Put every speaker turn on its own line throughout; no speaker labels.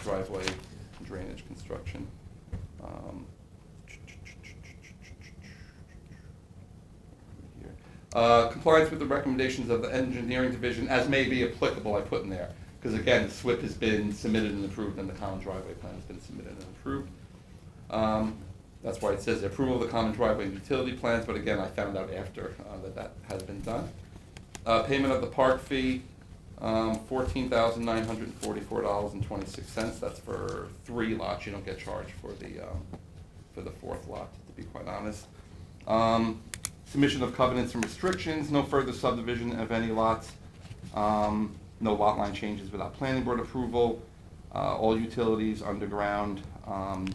driveway drainage construction. Um, here. Uh, Compliance with the recommendations of the engineering division as may be applicable, I put in there. Because again, SWIP has been submitted and approved, and the common driveway plan has been submitted and approved. Um, That's why it says approval of the common driveway and utility plans, but again, I found out after uh, that that had been done. Uh, Payment of the park fee, um, fourteen thousand nine hundred and forty-four dollars and twenty-six cents. That's for three lots, you don't get charged for the, um, for the fourth lot, to be quite honest. Um, Submission of covenants and restrictions, no further subdivision of any lots, um, no lot line changes without planning board approval, uh, all utilities underground, um,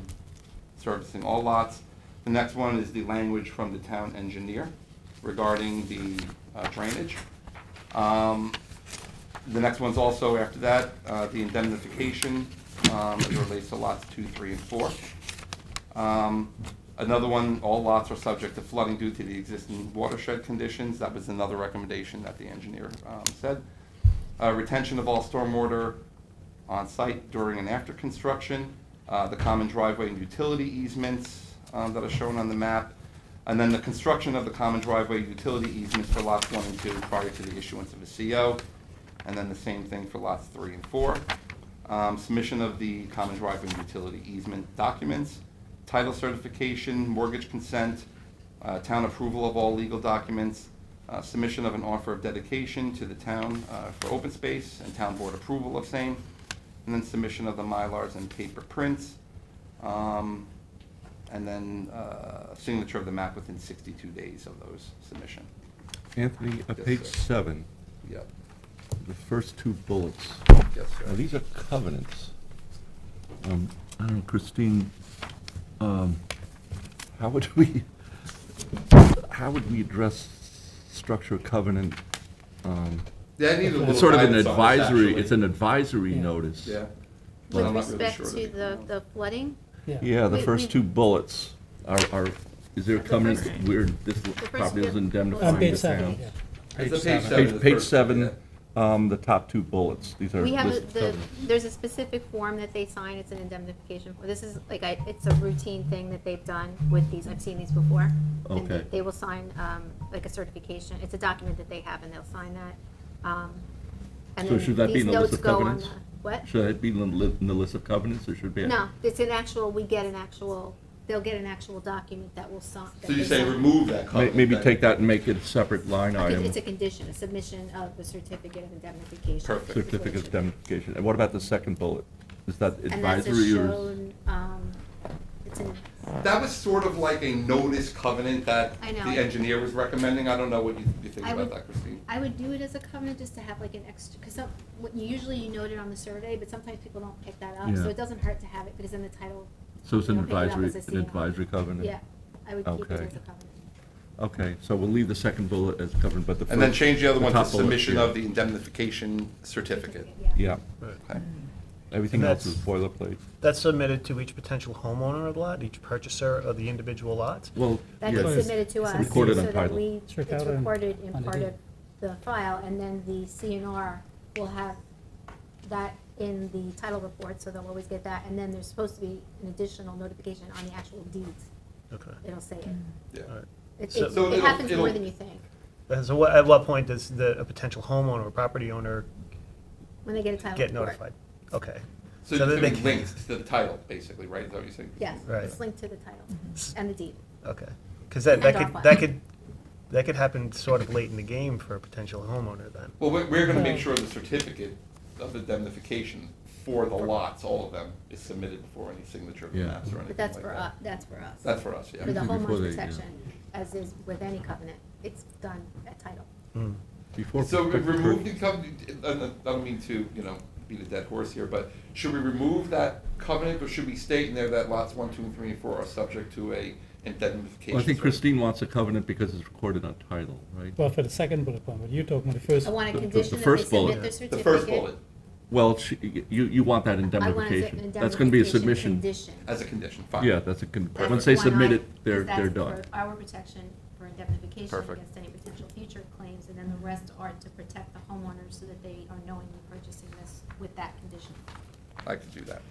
servicing all lots. The next one is the language from the town engineer regarding the uh, drainage. Um, The next one's also after that, uh, the indemnification, um, as it relates to lots two, three, and four. Um, Another one, all lots are subject to flooding due to the existing watershed conditions. That was another recommendation that the engineer um, said. Uh, Retention of all stormwater on site during and after construction, uh, the common driveway and utility easements um, that are shown on the map, and then the construction of the common driveway utility easements for lots one and two prior to the issuance of a CO, and then the same thing for lots three and four. Um, Submission of the common driveway and utility easement documents, title certification, mortgage consent, uh, town approval of all legal documents, uh, submission of an offer of dedication to the town uh, for open space and town board approval of same, and then submission of the Mylars and paper prints, um, and then uh, signature of the map within 62 days of those submission.
Anthony, on
Yes,
page
sir.
seven,
Yep,
the first two bullets,
yes,
now these are covenants. Um, I don't know, Christine, um, how would we, how would we address structure covenant? um,
Yeah, I need a little
It's sort of an
guidance on this,
advisory,
actually.
it's an advisory
Yeah.
notice.
Yeah. Well,
With
I'm not really
respect
sure
to
that-
the, the flooding,
Yeah, the
We-
first
we-
two bullets are, are, is there a
The
covenant
first-
where this property is
two-
indemnified?
On
Find
page
the
seven,
town?
yeah.
It's a
Page
page
seven.
seven.
Page,
the
page
first- yeah.
seven, um, the top two bullets, these are.
we have, a-
listed
the,
covenants.
there's a specific form that they sign, it's an indemnification. form. This is, like, I, it's a routine thing that they've done with these, I've seen these before. And
Okay.
They will sign, um, like a certification, it's a document that they have and they'll sign that. Um, and
So
then
should that be
these
in the list
notes
of
go on
covenants?
the- What?
Should that be in the li- in the list of covenants, or should it be?
No, it's an actual, we get an actual, they'll get an actual document that will sign. that
So you
they
say
sign.
remove that
May-
covenant?
Maybe
then.
take that and make it a separate line
I think
item,
It's a condition, a submission of the certificate of indemnification.
Perfect.
is what it
certificate of
should be.
indemnification. And what about the second bullet? Is that
And that's a
advisory or? is-
shown, um, it's an,
That was sort of like a notice covenant that
I know.
the engineer was recommending. I don't know what you you think
I
about
would-
that, Christine.
I would do it as a covenant just to have like an extra, because some, what, you- usually you note it on the survey, but sometimes people don't pick that up,
Yeah.
so it doesn't hurt to have it, because in the title.
So it's an
you don't pick it up
advisory,
as a
an
CO.
advisory covenant?
Yeah, I would keep it as a
Okay.
covenant.
Okay, so we'll leave the second bullet as covenant, but the first.
And then change the other one to
top bullet,
submission
yeah.
of the indemnification certificate.
Yeah,
Okay.
everything
And
else is
that's-
boilerplate.
That's submitted to each potential homeowner of the lot, each purchaser of the individual lots.
Well,
That
yes.
gets submitted to
It's
us, so
recorded on
that
title.
we, it's
Check out on-
recorded in
on the
part
deed.
of the file, and then the CNR will have that in the title report, so they'll always get that, and then there's supposed to be an additional notification on the actual deeds,
Okay.
it'll say it.
Yeah.
All right.
It,
So-
it,
So
it
it'll-
happens more
it'll-
than you think,
And So what, at what point does the, a potential homeowner or property owner
when they get a title report.
get notified? Okay.
So
So
it's
that they
gonna be
can-
linked to the title, basically, right? Is that what you're saying?
Yes,
Right.
it's linked to the title and the deed.
Okay, because that,
And
that
off
could,
one.
that could, that could happen sort of late in the game for a potential homeowner then.
Well, we're, we're gonna make sure the certificate of indemnification for the lots, all of them, is submitted before any signature of the
Yeah.
maps or anything
But
like that.
that's for us, that's for us.
That's for us,
For the
yeah.
Before
homeowner's
they- yeah.
protection, as is with any covenant, it's done at title.
Mm.
Before.
So we remove the covenant, I don't mean to, you know, beat a dead horse here, but should we remove that covenant, or should we state in there that lots one, two, and three, and four are subject to a indemnification?
Well, I think
certificate?
Christine wants a covenant because it's recorded on title, right?
Well, for the second bullet point, but you're talking about the first.
I want
The-
a
the- the
condition that they
first bullet.
submit their certificate.
The first bullet,
Well, she- you, you want that
I want it as an
indemnification. That's going to be a submission.
Condition.
as a condition, fine.
Yeah, that's a, con-
That's
once they
the one
submit
I-
it, they're,
because
they're
that's
done.
for Our protection for indemnification
Perfect.
against any potential future claims, and then the rest are to protect the homeowners so that they are knowingly purchasing this with that condition.
I could do that.